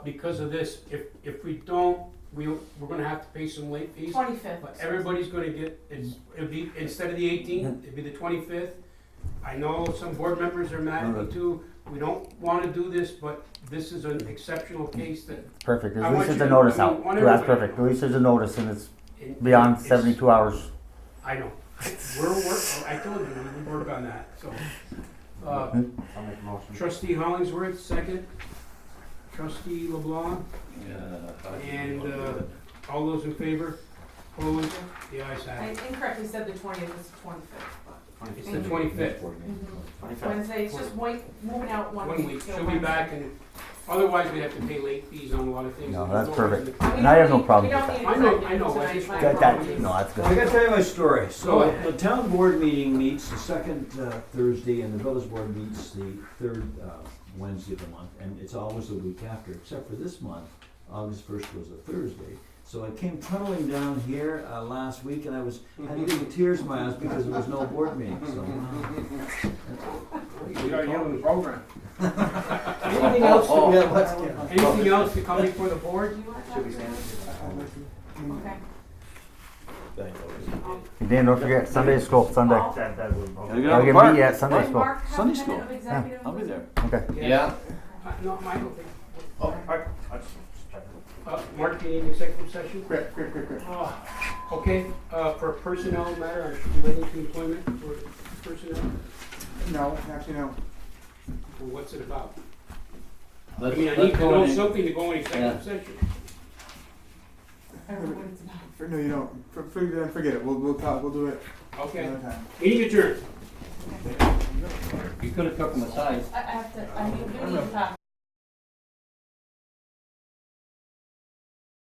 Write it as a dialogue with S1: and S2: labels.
S1: because of this, if, if we don't, we, we're gonna have to pay some late fees.
S2: Twenty-fifth.
S1: But everybody's gonna get, it's, it'll be, instead of the eighteenth, it'll be the twenty-fifth. I know some board members are mad at me too, we don't wanna do this, but this is an exceptional case that.
S3: Perfect.
S1: I
S3: At
S1: want
S3: least it's
S1: you
S3: a
S1: to-
S3: notice
S1: I
S3: out.
S1: want
S3: That's
S1: everybody to
S3: perfect.
S1: know.
S3: At least there's a notice and it's
S1: it-
S3: beyond
S1: it's-
S3: seventy-two hours.
S1: I know, we're, we're, I told you, we work on that, so. Uh,
S4: I'll make a motion.
S1: Trustee Hollingsworth, second. Trustee LeBlanc, and, uh, all those in favor? Opposed? The ayes
S2: I
S1: have it.
S2: incorrectly said the twentieth, it's the twenty-fifth, but
S1: It's the twenty-fifth,
S2: Mm-hmm. Wednesday, it's just wait, moving out one week.
S1: Mm-hmm. one week,
S2: till
S1: she'll be
S2: Wednesday.
S1: back, and otherwise we'd have to pay late fees on a lot of things.
S3: No, that's
S1: There's reason
S2: We
S3: And I have no
S2: don't
S3: problem
S2: need-
S3: with
S1: that.
S2: We
S1: I
S2: don't
S1: know-
S2: need
S1: I know, I
S2: executive
S1: just-
S2: tonight, my
S3: That, that,
S2: apologies.
S3: no, that's
S4: I
S3: good.
S4: gotta tell you my story.
S1: Go
S4: So
S1: ahead.
S4: the town board meeting meets the second uh, Thursday and the village board meets the third uh, Wednesday of the month. And it's always the week after, except for this month, August first was a Thursday. So I came tunneling down here uh, last week and I was, had little tears in my eyes because there was no board meeting, so.
S1: program. Oh.
S4: Anything else? Yeah, what's- yeah.
S1: Anything else to come before the board?
S2: Do you want that? Okay. Um,
S3: Dan, don't forget Sunday is school. Sunday.
S1: Oh.
S2: I'll-
S3: We're gonna meet you at Sunday
S2: Did
S3: school.
S2: Mark have
S5: Sunday
S2: a minute
S5: school.
S2: of executive?
S5: I'll be there.
S3: Okay.
S5: Yeah.
S1: Uh, No, I don't think,
S6: Oh, I, I
S1: uh, Mark, you need an executive session?
S6: quick, quick, quick, quick.
S1: Ah, Okay, uh, for personnel matter, relating to employment for personnel,
S6: No, actually, no.
S1: well, what's it about? I
S5: Let's,
S1: mean, I
S5: let's
S1: need to
S5: go
S1: know
S5: in.
S1: something to go in executive session.
S2: I don't know what it's about.
S6: For, no, you don't. For, for, forget it. We'll, we'll talk. We'll do it
S1: Okay,
S6: another time.
S1: meeting adjourned.
S5: You could have took them aside.
S2: I I have to, I mean, we need to talk.